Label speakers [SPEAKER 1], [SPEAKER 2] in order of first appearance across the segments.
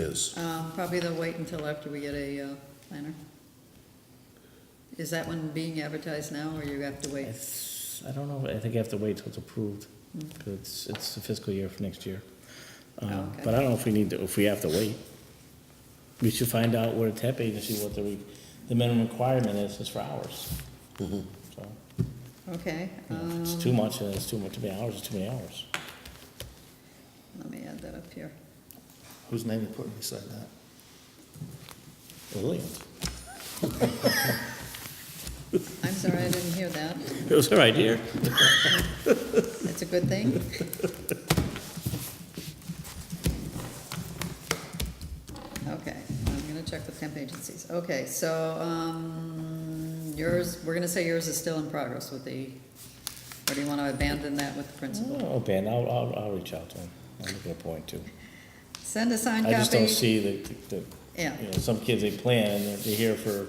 [SPEAKER 1] is?
[SPEAKER 2] Uh, Probably they'll wait until after we get a uh, planner. Is that one being advertised now, or you have to wait?
[SPEAKER 3] It's, I don't know, I think I have to wait till it's approved, 'cause it's, it's the fiscal year for next year. Um,
[SPEAKER 2] Okay.
[SPEAKER 3] But I don't know if we need to, if we have to wait. We should find out where the tap agency, what the, re- the minimum requirement is, is for hours. So,
[SPEAKER 2] Okay,
[SPEAKER 3] you know, if it's
[SPEAKER 2] um,
[SPEAKER 3] too much, then it's too much, too many hours, it's too many hours.
[SPEAKER 2] let me add that up here.
[SPEAKER 1] Whose name you putting beside that?
[SPEAKER 3] Williams.
[SPEAKER 2] I'm sorry, I didn't hear that.
[SPEAKER 3] It was her idea.
[SPEAKER 2] That's a good thing. Okay, I'm gonna check with temp agencies. Okay, so, um, yours, we're gonna say yours is still in progress with the, or do you wanna abandon that with the principal?
[SPEAKER 3] Oh, Ben, I'll, I'll, I'll reach out to him, I'll make it a point too.
[SPEAKER 2] Send a signed
[SPEAKER 3] I
[SPEAKER 2] copy.
[SPEAKER 3] just don't see the, the,
[SPEAKER 2] Yeah,
[SPEAKER 3] you know, some kids, they plan, and they're, they're here for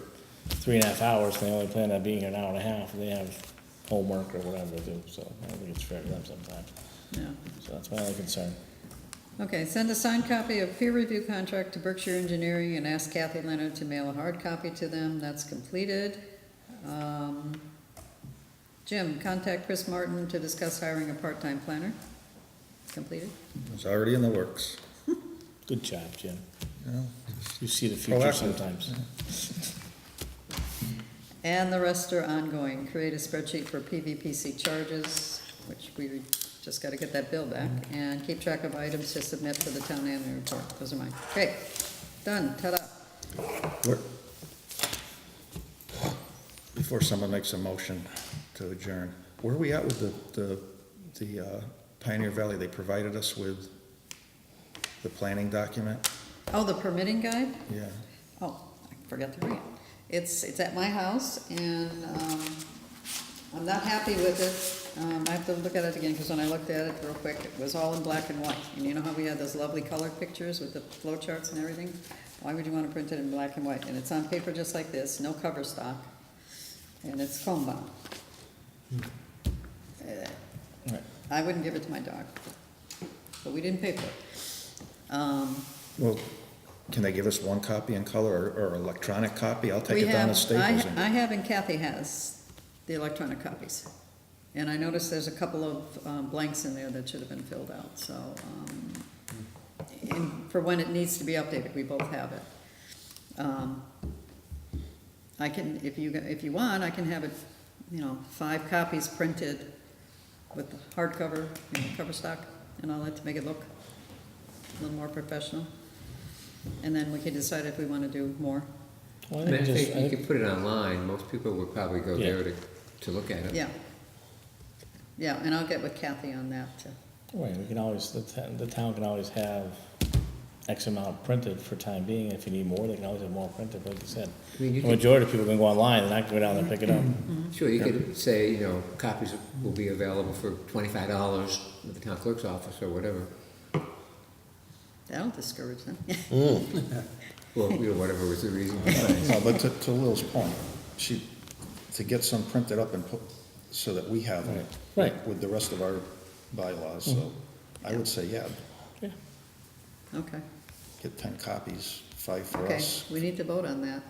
[SPEAKER 3] three and a half hours, and they only plan on being here an hour and a half, and they have homework or whatever to do, so I don't think it's fair to them sometimes.
[SPEAKER 2] yeah.
[SPEAKER 3] So that's my only concern.
[SPEAKER 2] Okay, send a signed copy of peer review contract to Berkshire Engineering and ask Kathy Leonard to mail a hard copy to them. That's completed. Um, Jim, contact Chris Martin to discuss hiring a part-time planner. Completed.
[SPEAKER 4] It's already in the works.
[SPEAKER 3] Good job, Jim.
[SPEAKER 4] you know?
[SPEAKER 3] You see the future
[SPEAKER 4] Proactive.
[SPEAKER 3] sometimes.
[SPEAKER 2] And the rest are ongoing. Create a spreadsheet for PVPC charges, which we just gotta get that bill back, and keep track of items to submit for the town annual report. Those are mine. Okay, done, ta-da.
[SPEAKER 4] We're- Before someone makes a motion to adjourn, where are we at with the, the, the uh, Pioneer Valley? They provided us with the planning document?
[SPEAKER 2] Oh, the permitting guide?
[SPEAKER 4] Yeah.
[SPEAKER 2] Oh, I forgot to bring it. It's, it's at my house, and, um, I'm not happy with it. Um, I have to look at it again, because when I looked at it real quick, it was all in black and white. And you know how we had those lovely color pictures with the flow charts and everything? Why would you wanna print it in black and white? And it's on paper just like this, no cover stock, and it's comb bound. Uh,
[SPEAKER 3] Right.
[SPEAKER 2] I wouldn't give it to my dog, but we didn't pay for it. Um,
[SPEAKER 4] Well, can they give us one copy in color or, or electronic copy? I'll
[SPEAKER 2] We
[SPEAKER 4] take it down to
[SPEAKER 2] have- I-
[SPEAKER 4] Staples. and-
[SPEAKER 2] I have and Kathy has the electronic copies. And I noticed there's a couple of um, blanks in there that should have been filled out, so, um, and for when it needs to be updated, we both have it. Um, I can, if you, if you want, I can have it, you know, five copies printed with the hardcover, you know, cover stock and all that to make it look a little more professional. And then we can decide if we want to do more.
[SPEAKER 3] Well, I
[SPEAKER 5] And I
[SPEAKER 3] think just-
[SPEAKER 5] think
[SPEAKER 3] I
[SPEAKER 5] you
[SPEAKER 3] think-
[SPEAKER 5] could put it online, most people would probably go
[SPEAKER 3] Yeah.
[SPEAKER 5] there to, to look at it.
[SPEAKER 2] Yeah. Yeah, and I'll get with Kathy on that, too.
[SPEAKER 3] Right, we can always, the town, the town can always have X amount printed for time being, if you need more, they can always have more printed, like you said.
[SPEAKER 5] I mean,
[SPEAKER 3] The
[SPEAKER 5] you could,
[SPEAKER 3] majority of people can go online, they're not gonna go down there and pick it up.
[SPEAKER 5] sure, you could say, you know, copies will be available for twenty-five dollars at the town clerk's office or whatever.
[SPEAKER 2] That'll discourage them.
[SPEAKER 5] Well, you know, whatever was the reason behind it.
[SPEAKER 4] No, but to, to Lil's point, she, to get some printed up and put, so that we have it.
[SPEAKER 3] Right. Right.
[SPEAKER 4] With the rest of our bylaws, so I would say, yeah,
[SPEAKER 3] Yeah.
[SPEAKER 2] Okay,
[SPEAKER 4] get ten copies, five for
[SPEAKER 2] okay,
[SPEAKER 4] us.
[SPEAKER 2] we need to vote on that.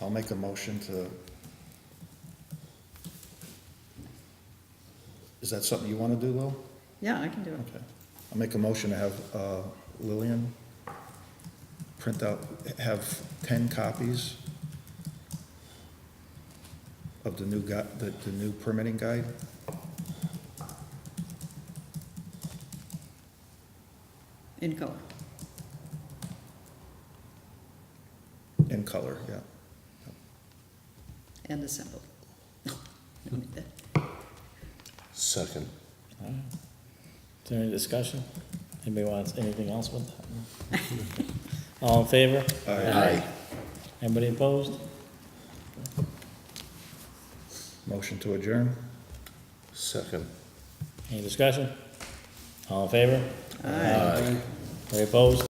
[SPEAKER 4] I'll make a motion to. Is that something you wanna do, Lil?
[SPEAKER 2] Yeah, I can do it.
[SPEAKER 4] Okay. I'll make a motion to have uh, Lillian print out, have ten copies of the new gu, the, the new permitting guide.
[SPEAKER 2] In color,
[SPEAKER 4] In color, yeah.
[SPEAKER 2] and assembled. No, no, that-
[SPEAKER 1] Second.
[SPEAKER 3] Is there any discussion? Anybody wants anything else with that? All in favor?
[SPEAKER 4] Aye.
[SPEAKER 3] Anybody opposed?
[SPEAKER 4] Motion to adjourn?
[SPEAKER 1] Second.
[SPEAKER 3] Any discussion? All in favor?
[SPEAKER 2] Aye.
[SPEAKER 3] Any opposed?